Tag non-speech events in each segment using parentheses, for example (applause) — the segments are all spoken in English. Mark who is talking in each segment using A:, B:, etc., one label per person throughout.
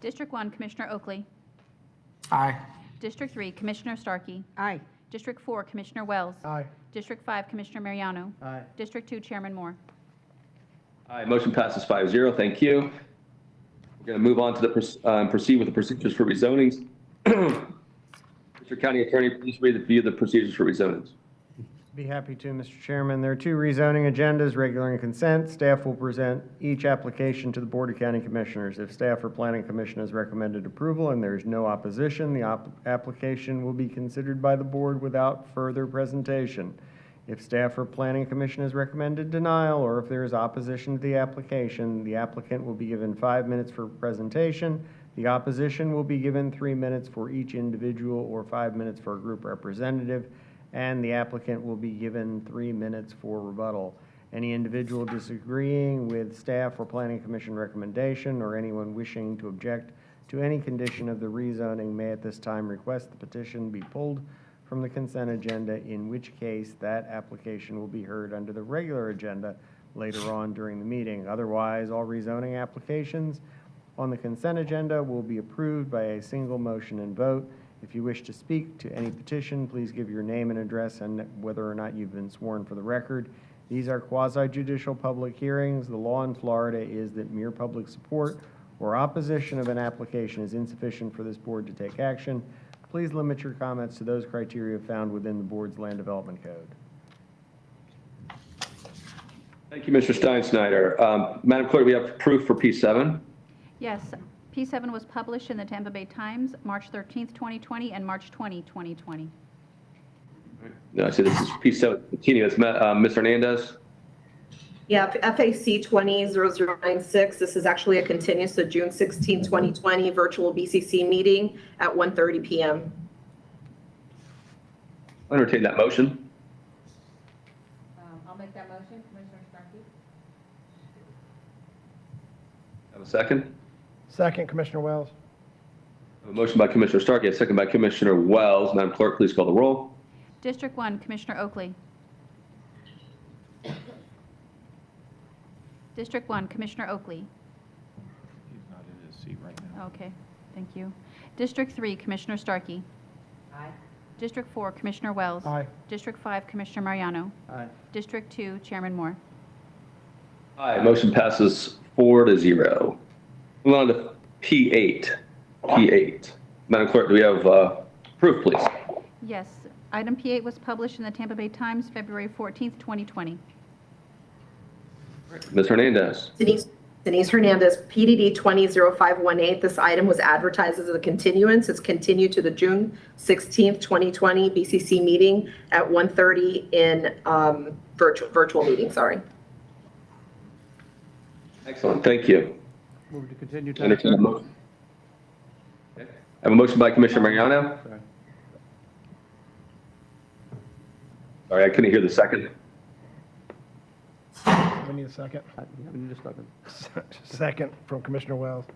A: District 1, Commissioner Oakley.
B: Aye.
A: District 3, Commissioner Starkey.
C: Aye.
A: District 4, Commissioner Wells.
B: Aye.
A: District 5, Commissioner Mariano.
D: Uh,
B: Aye.
A: District 2, Chairman Moore.
E: Aye, motion passes 5-0. Thank you. We're going to move on to the, proce- um, proceed with the procedures for rezonings. (clears throat) Mr. County Attorney, please read the view the procedures for rezonings.
D: Be happy to, Mr. Chairman. There are two rezoning agendas, regular and consent. Staff will present each application to the Board of County Commissioners. If staff or Planning Commission has recommended approval and there is no opposition, the op- application will be considered by the board without further presentation. If staff or Planning Commission has recommended denial, or if there is opposition to the application, the applicant will be given five minutes for presentation. The opposition will be given three minutes for each individual or five minutes for a group representative, and the applicant will be given three minutes for rebuttal. Any individual disagreeing with staff or planning commission recommendation, or anyone wishing to object to any condition of the rezoning may at this time request the petition be pulled from the consent agenda, in which case that application will be heard under the regular agenda later on during the meeting. Otherwise, all rezoning applications on the consent agenda will be approved by a single motion and vote. If you wish to speak to any petition, please give your name and address and whether or not you've been sworn for the record. These are quasi judicial public hearings. The law in Florida is that mere public support or opposition of an application is insufficient for this board to take action. Please limit your comments to those criteria found within the board's land development code.
E: Thank you, Mr. Stein Snyder. Um, Madam Clerk, we have proof for P seven.
A: Yes, P7 was published in the Tampa Bay Times, March 13th, 2020, and March 20, 2020.
E: No, I see this is P seven, continue, it's, Ma- uh, Ms. Hernandez.
F: Yeah, FAC 20-0096, this is actually a continuous, so June 16, 2020, virtual BCC meeting at 1:30 PM.
E: Entertain that motion.
G: Um, I'll make that motion, Commissioner Starkey.
E: Have a second?
B: Second, Commissioner Wells.
E: A motion by Commissioner Starkey, a second by Commissioner Wells. Madam Clerk, please call the roll.
A: District 1, Commissioner Oakley. District 1, Commissioner Oakley.
H: He's not in his seat right now.
A: Okay, thank you. District 3, Commissioner Starkey.
G: Aye.
A: District 4, Commissioner Wells.
B: Aye.
A: District 5, Commissioner Mariano.
D: Aye.
A: District 2, Chairman Moore.
E: Aye, motion passes four to zero. Move on to P eight, P eight. Madam Clerk, do we have, uh, proof, please?
A: Yes, item P8 was published in the Tampa Bay Times, February 14th, 2020.
E: Ms. Hernandez.
F: Denise Denise Hernandez, PDD 20-0518, this item was advertised as a continuance, it's continued to the June 16, 2020 BCC meeting at 1:30 in um, virtual, virtual meeting, sorry.
E: Excellent, thank you.
B: Move to continue. to-
E: Entertain a motion. Okay. I have a motion by Commissioner Mariano.
B: Sorry.
E: Sorry, I couldn't hear the second.
I: We need a second.
B: Uh, yeah, we need a second.
I: (laughs) Second from Commissioner Wells.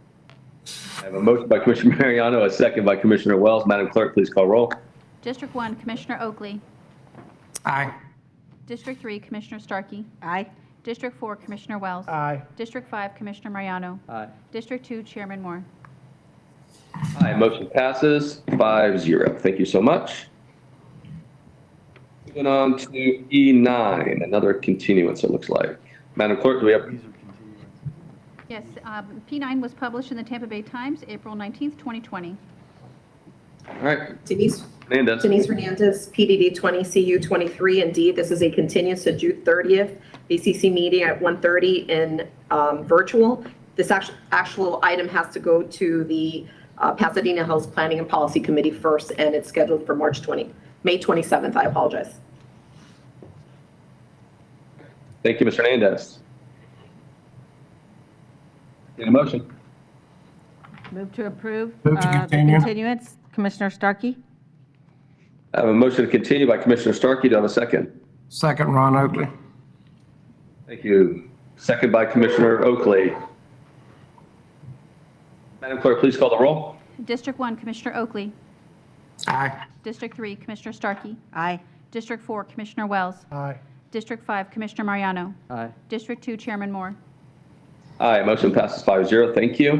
E: I have a motion by Commissioner (laughs) Mariano, a second by Commissioner Wells. Madam Clerk, please call roll.
A: District 1, Commissioner Oakley.
B: Aye.
A: District 3, Commissioner Starkey.
C: Aye.
A: District 4, Commissioner Wells.
I: Aye.
A: District 5, Commissioner Mariano.
B: Aye.
A: District 2, Chairman Moore.
E: Aye, motion passes five zero. Thank you so much. Moving on to E9, another continuance, it looks like. Madam Clerk, do we have,
A: Yes, um, P9 was published in the Tampa Bay Times, April 19th, 2020.
E: all right,
F: Denise
E: Hernandez.
F: Denise Hernandez, PDD 20CU23, indeed, this is a continuance to June 30th, BCC meeting at 1:30 in um, virtual. This act- actual item has to go to the uh, Pasadena House Planning and Policy Committee first, and it's scheduled for March 20, May 27th, I apologize.
E: Thank you, Mr. Hernandez. Need a motion?
C: Move to approve.
B: Move to
C: uh, the
B: continue.
C: Continuance, Commissioner Starkey?
E: I have a motion to continue by Commissioner Starkey. Do I have a second?
B: Second, Ron Oakley.
E: Thank you. Second by Commissioner Oakley. Madam Clerk, please call the roll.
A: District 1, Commissioner Oakley.
B: Aye.
A: District 3, Commissioner Starkey.
C: Aye.
A: District 4, Commissioner Wells.
I: Aye.
A: District 5, Commissioner Mariano.
B: Aye.
A: District 2, Chairman Moore.
E: Aye, motion passes five zero. Thank you.